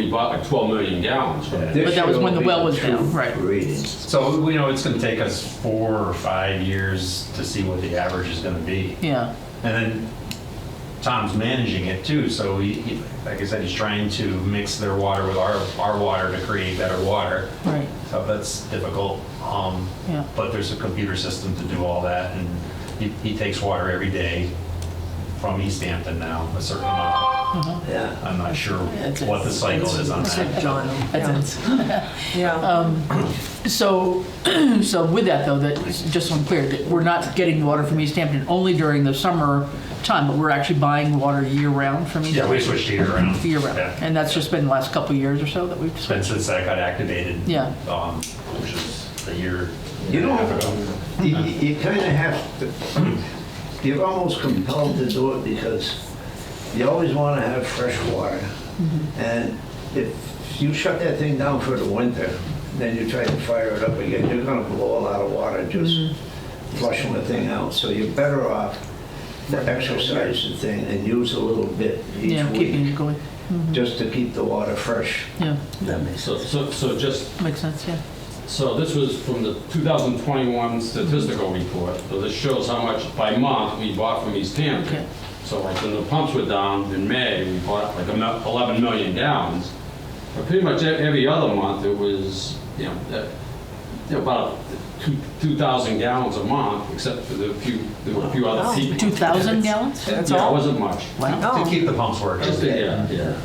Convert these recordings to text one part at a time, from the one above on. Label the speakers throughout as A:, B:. A: you bought like 12 million gallons from it.
B: This
C: But that was
B: year
C: when the
B: will
C: well
B: be
C: was
B: two
C: down, right.
B: Readings.
D: So, we know, it's gonna take us four or five years to see what the average is gonna be.
C: Yeah,
D: And then Tom's managing it too, so he, he- like I said, he's trying to mix their water with our, our water to create better water.
C: right,
D: So that's difficult. Um,
C: Yeah.
D: But there's a computer system to do all that, and he, he takes water every day from East Hampton now, a certain amount.
B: Yeah.
D: I'm not sure
C: It's-
D: what the cycle is on that.
E: John.
C: that's it.
E: Yeah.
C: So, so with that though, that, just so I'm clear, that we're not getting water from East Hampton only during the summer time, but we're actually buying water year-round from East
D: Yeah, we
C: Hampton?
D: switched year around.
C: Year-round,
D: Yeah.
C: and that's just been the last couple of years or so that we've
D: It's been
C: switched?
D: since that got activated.
C: Yeah.
D: um, Which is a year.
B: You
D: and a half
B: know,
D: ago.
B: You, you kind of have to, you're almost compelled to do it because you always want to have fresh water.
C: Mm-hmm.
B: And if you shut that thing down for the winter, then you try to fire it up again, you're going to blow a lot of water just
C: Mm-hmm.
B: flushing the thing out. So you're better off to exercise the thing and use a little bit each
C: Yeah, keeping it mm-hmm.
B: week
C: going,
B: just to keep the water fresh.
C: yeah,
B: That makes
A: So, so, so just,
C: makes sense, yeah.
A: so this was from the 2021 statistical report. So this shows how much by month we bought from East
C: Okay.
A: Hampton. So like when the pumps were down in May, we bought like a mil- 11 million gallons. But pretty much e- every other month, it was, you know, uh, you know, about two- 2,000 gallons a month, except for the few, there were a few other peak.
C: 2,000 gallons?
E: That's
A: Yeah, it
E: all?
A: wasn't much.
C: Wow,
D: To
E: Oh.
D: keep the pumps working.
A: Just, yeah, yeah.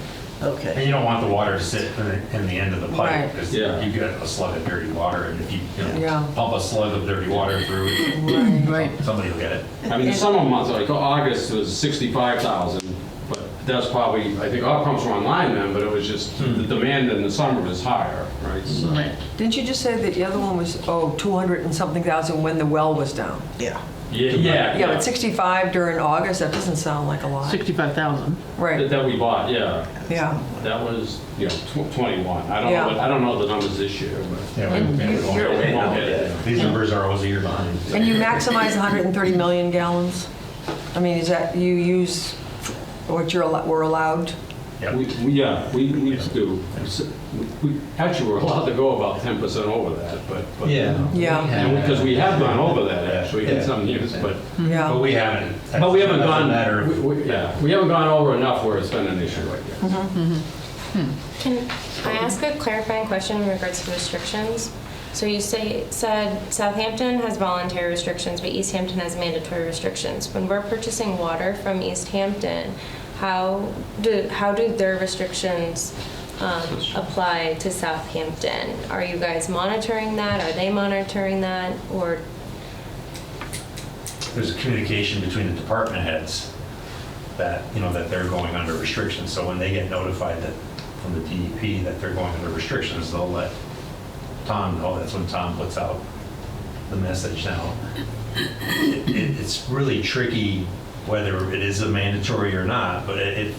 E: Okay.
D: And you don't want the water to sit in the, in the end of the pipe,
E: Right.
D: because
A: Yeah.
D: you get a slug of dirty water, and if you, you
E: Yeah.
D: know, pump a slug of dirty water through, it,
C: right,
D: somebody will get it.
A: I mean, the summer months, like oh, August was 65,000, but that's probably, I think our pumps were online then, but it was just, the demand in the summer was higher, right? So-
C: right,
E: Didn't you just say that the other one was, oh, 200 and something thousand when the well was down?
B: Yeah.
A: Yeah, yeah.
E: Yeah, but 65 during August, that doesn't sound like a lot.
C: 65,000,
A: That
E: Right,
A: that we bought, yeah.
E: yeah.
A: That was, you know, tw- 21. I don't know,
E: Yeah.
A: what- I don't know the numbers this year, but.
D: Yeah, we- we won't
E: you're-
D: get
A: we
D: it.
A: won't get it.
D: These numbers are always a year behind.
E: And you maximize 130 million gallons? I mean, is that, you use what you're, allo- we're allowed?
D: Yeah.
A: We, we- yeah, we, we do. S- we- we- Actually, we're allowed to go about 10% over that, but. but-
E: Yeah,
A: Because we have gone over that actually in
D: Yeah.
A: some years, but.
D: But
E: yeah.
D: we haven't.
A: But we haven't
D: That's a
A: gone,
D: matter of-
A: we- we- yeah, we haven't gone over enough where it's been an issue right now.
F: Can I ask a clarifying question in regards to restrictions? So you say, said Southampton has voluntary restrictions, but East Hampton has mandatory restrictions. When we're purchasing water from East Hampton, how do, how do their restrictions um, apply to Southampton? Are you guys monitoring that? Are they monitoring that? Or,
D: There's a communication between the department heads that, you know, that they're going under restrictions, so when they get notified that, from the DEP, that they're going under restrictions, they'll let Tom know, that's when Tom puts out the message now. It- it- It's really tricky whether it is a mandatory or not, but it, it-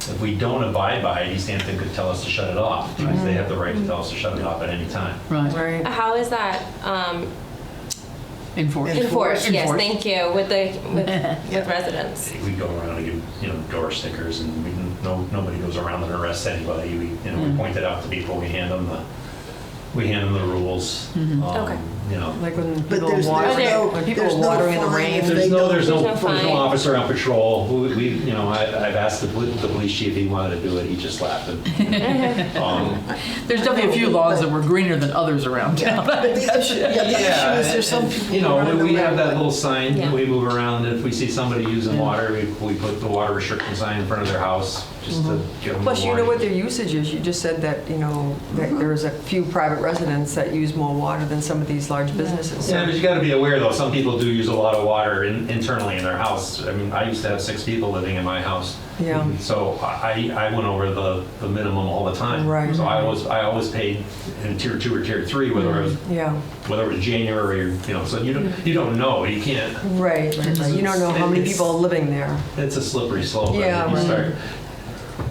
D: if we don't abide by it, East Hampton could tell us to shut it off, because they have the right to tell us to shut it off at any time.
C: right,
E: Right.
F: how is that um,
C: enforced.
F: enforced? Yes,
C: Enforced.
F: thank you, with the, with- with residents.
D: we go around and give, you know, door stickers and we, no, nobody goes around and arrests anybody. We, you know, we
F: Mm-hmm.
D: point it out to people, we hand them the, we hand them the rules. Um,
F: Mm-hmm. Okay.
D: You know,
E: Like when
G: But
E: people are
G: there's no-
E: watering,
F: no-
E: when people
G: there's
E: are
G: no
E: watering in the
G: fine
E: rain.
G: if they
D: there's no, there's no,
F: There's no
D: there's no
F: fine.
D: officer on patrol. We, we- you know, I, I've asked the poli- the police chief, he wanted to do it, he just laughed. and, um,
C: There's definitely a few lawns that were greener than others around town.
G: But the issue, yeah, the issue
D: Yeah,
G: is there's some
D: and,
G: people.
D: You know,
G: around
D: we-
G: the
D: we have
G: road.
D: that little sign,
F: Yeah.
D: we move around, if we see somebody using water, we, we put the water restriction sign in front of their house, just to
F: Mm-hmm.
D: give them a warning.
E: Plus, you know what their usage is. You just said that, you know, that
D: Mm-hmm.
E: there's a few private residents that use more water than some of these large businesses.
D: Yeah,
E: So
D: but you got to be aware though. Some people do use a lot of water in, internally in their house. I mean, I used to have six people living in my house.
E: Yeah.
D: So I, I went over the, the minimum all the time.
E: Right.
D: So I always I always paid in tier two or tier three, whether it was
E: Yeah,
D: whether it was January or you know. So you don't you don't know. You can't.
E: right. You don't know how many people are living there.
D: It's a slippery slope. I
E: Yeah,
D: think You
E: right.
D: start.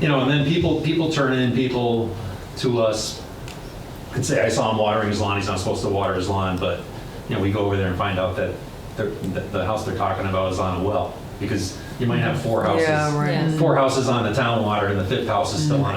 D: You know, and then people people turn in people to us and say, I saw him watering his lawn, he's not supposed to water his lawn, but, you know, we go over there and find out that they're- that the house they're talking about is on a well, because you might have four
E: Yeah,
D: houses,
E: right.
F: Yeah.
D: four houses on the town water, and the fifth house is still on a